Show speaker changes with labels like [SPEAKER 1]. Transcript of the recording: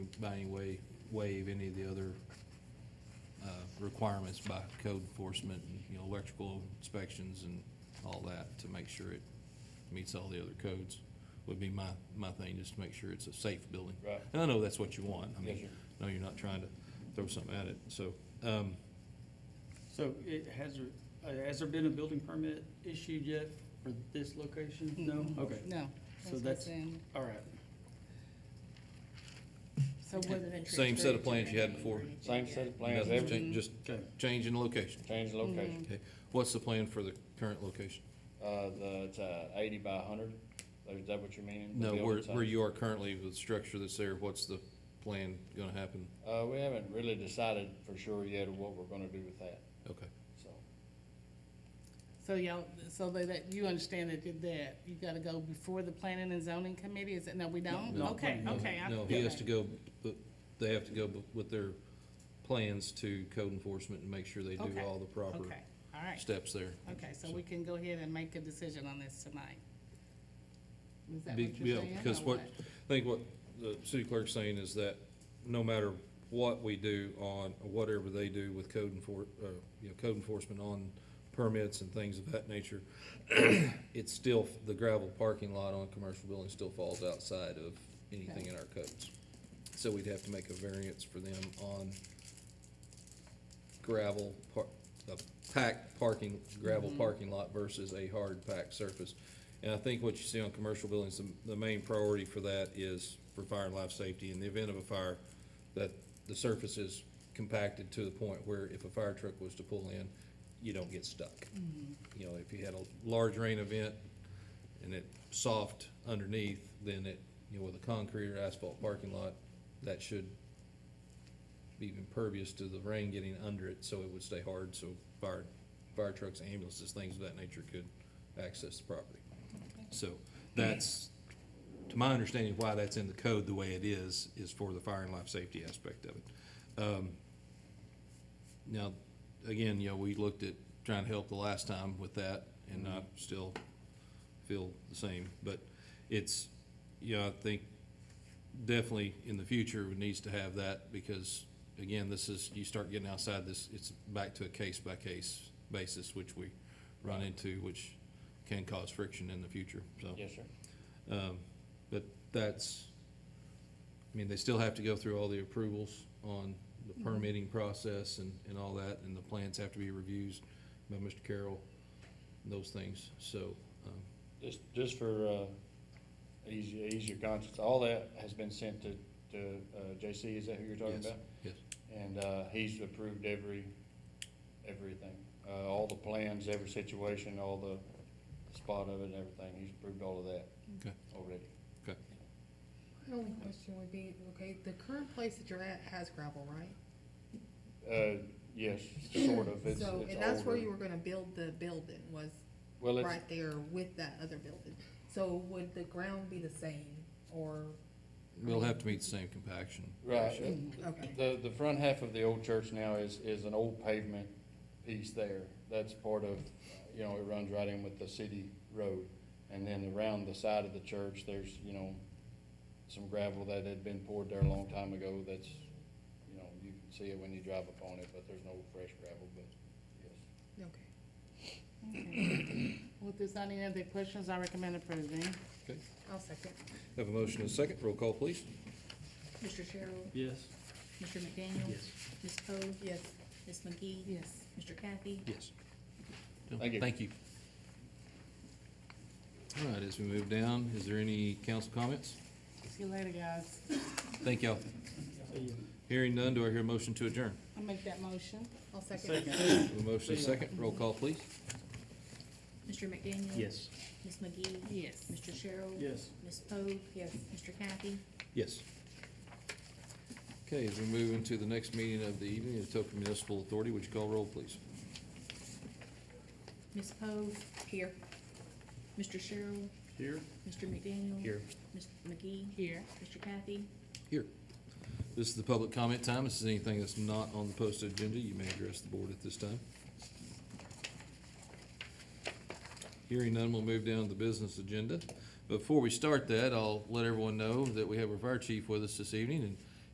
[SPEAKER 1] by any way waive any of the other uh, requirements by code enforcement, and, you know, electrical inspections and all that to make sure it meets all the other codes would be my, my thing, just to make sure it's a safe building.
[SPEAKER 2] Right.
[SPEAKER 1] And I know that's what you want. I mean,
[SPEAKER 2] Yes,
[SPEAKER 1] no, you're not trying to throw something at it, so, um,
[SPEAKER 3] So it, has there, uh, has there been a building permit issued yet for this location? No? Okay,
[SPEAKER 4] No,
[SPEAKER 3] So
[SPEAKER 4] that's
[SPEAKER 3] that's-
[SPEAKER 4] what's in.
[SPEAKER 3] all right.
[SPEAKER 4] So what,
[SPEAKER 1] same set of plans you had before.
[SPEAKER 2] Same set of plans,
[SPEAKER 1] nothing's
[SPEAKER 2] everything,
[SPEAKER 1] changed, just
[SPEAKER 3] Okay.
[SPEAKER 1] changing location.
[SPEAKER 2] change the location.
[SPEAKER 1] Okay, what's the plan for the current location?
[SPEAKER 2] Uh, the, it's uh, eighty by hundred, is that what you're meaning? The
[SPEAKER 1] No, where,
[SPEAKER 2] building
[SPEAKER 1] where
[SPEAKER 2] size?
[SPEAKER 1] you are currently with the structure that's there, what's the plan gonna happen?
[SPEAKER 2] Uh, we haven't really decided for sure yet what we're gonna do with that,
[SPEAKER 1] Okay,
[SPEAKER 2] so.
[SPEAKER 4] so y'all, so that, that, you understand that, did that, you gotta go before the planning and zoning committee, is it, no, we don't?
[SPEAKER 3] No,
[SPEAKER 4] Okay,
[SPEAKER 3] no,
[SPEAKER 4] okay. I-
[SPEAKER 1] no, he has
[SPEAKER 4] okay.
[SPEAKER 1] to go, but they have to go bu- with their plans to code enforcement and make sure they do
[SPEAKER 4] Okay,
[SPEAKER 1] all the proper
[SPEAKER 4] Okay, all right,
[SPEAKER 1] steps there.
[SPEAKER 4] okay, so we can go ahead and make a decision on this tonight. Is that
[SPEAKER 1] Be-
[SPEAKER 4] what you're
[SPEAKER 1] yeah,
[SPEAKER 4] saying? Oh,
[SPEAKER 1] because
[SPEAKER 4] or
[SPEAKER 1] what, I think what the city clerk's saying is that no matter what we do on, whatever they do with code enfor, uh, you know, code enforcement on permits and things of that nature, it's still, the gravel parking lot on commercial buildings still falls outside of anything in our codes. So we'd have to make a variance for them on gravel par, a packed parking, gravel parking lot versus a hard packed surface. And I think what you see on commercial buildings, the, the main priority for that is for fire and life safety. In the event of a fire, that the surface is compacted to the point where if a fire truck was to pull in, you don't get stuck. You know, if you had a large rain event and it soft underneath, then it, you know, with a concrete or asphalt parking lot, that should be impervious to the rain getting under it, so it would stay hard, so fire, fire trucks, ambulances, things of that nature could access the property. So that's, to my understanding, why that's in the code the way it is, is for the fire and life safety aspect of it. Um, Now, again, you know, we looked at trying to help the last time with that, and I still feel the same, but it's, you know, I think definitely in the future it needs to have that because again, this is, you start getting outside this, it's back to a case by case basis, which we run into, which can cause friction in the future, so.
[SPEAKER 2] Yes, sir.
[SPEAKER 1] Um, but that's, I mean, they still have to go through all the approvals on the permitting process and, and all that, and the plans have to be reviewed by Mr. Carroll, and those things, so, um,
[SPEAKER 2] Just, just for, uh, easy, easier conscience, all that has been sent to, to, uh, JC, is that who you're talking
[SPEAKER 1] Yes.
[SPEAKER 2] about?
[SPEAKER 1] yes.
[SPEAKER 2] And, uh, he's approved every, everything, uh, all the plans, every situation, all the spot of it and everything, he's approved all of that
[SPEAKER 1] Okay.
[SPEAKER 2] already.
[SPEAKER 5] My only question would be, okay, the current place that you're at has gravel, right?
[SPEAKER 2] Uh, yes, sort of, it's, it's
[SPEAKER 5] So,
[SPEAKER 2] older.
[SPEAKER 5] and that's where you were gonna build the building, was
[SPEAKER 2] Well, it's,
[SPEAKER 5] right there with that other building. So would the ground be the same, or,
[SPEAKER 1] We'll have to meet the same compaction.
[SPEAKER 2] right,
[SPEAKER 1] ratio.
[SPEAKER 5] Mm-hmm. okay,
[SPEAKER 2] The, the front half of the old church now is, is an old pavement piece there. That's part of, you know, it runs right in with the city road. And then around the side of the church, there's, you know, some gravel that had been poured there a long time ago that's, you know, you can see it when you drive upon it, but there's no fresh gravel, but yes.
[SPEAKER 5] okay.
[SPEAKER 4] Okay. Well, if there's not any other questions, I recommend approving.
[SPEAKER 1] Okay,
[SPEAKER 5] I'll second.
[SPEAKER 1] have a motion and a second, roll call please.
[SPEAKER 6] Mr. Sherrill?
[SPEAKER 3] Yes.
[SPEAKER 6] Mr. McDaniel? Ms. Poe?
[SPEAKER 5] Yes,
[SPEAKER 6] Ms. McGee?
[SPEAKER 4] Yes.
[SPEAKER 6] Mr. Kathy?
[SPEAKER 1] Yes.
[SPEAKER 2] Thank you.
[SPEAKER 1] Thank you. All right, as we move down, is there any council comments?
[SPEAKER 4] See you later, guys.
[SPEAKER 1] Thank y'all. Hearing none, do I hear a motion to adjourn?
[SPEAKER 4] I'll make that motion.
[SPEAKER 5] I'll second.
[SPEAKER 1] Have a motion and a second, roll call please.
[SPEAKER 6] Mr. McDaniel?
[SPEAKER 3] Yes.
[SPEAKER 6] Ms. McGee?
[SPEAKER 4] Yes.
[SPEAKER 6] Mr. Sherrill?
[SPEAKER 3] Yes.
[SPEAKER 6] Ms. Poe? Yes. Mr. Kathy?
[SPEAKER 1] Yes. Okay, as we move into the next meeting of the evening, the Etoka Municipal Authority, would you call roll please?
[SPEAKER 6] Ms. Poe? Here. Mr. Sherrill?
[SPEAKER 3] Here?
[SPEAKER 6] Mr. McDaniel? Ms. McGee?
[SPEAKER 4] Here.
[SPEAKER 6] Mr. Kathy?
[SPEAKER 1] Here. This is the public comment time. This is anything that's not on the posted agenda. You may address the board at this time. Hearing none, we'll move down to the business agenda. Before we start that, I'll let everyone know that we have our fire chief with us this evening, and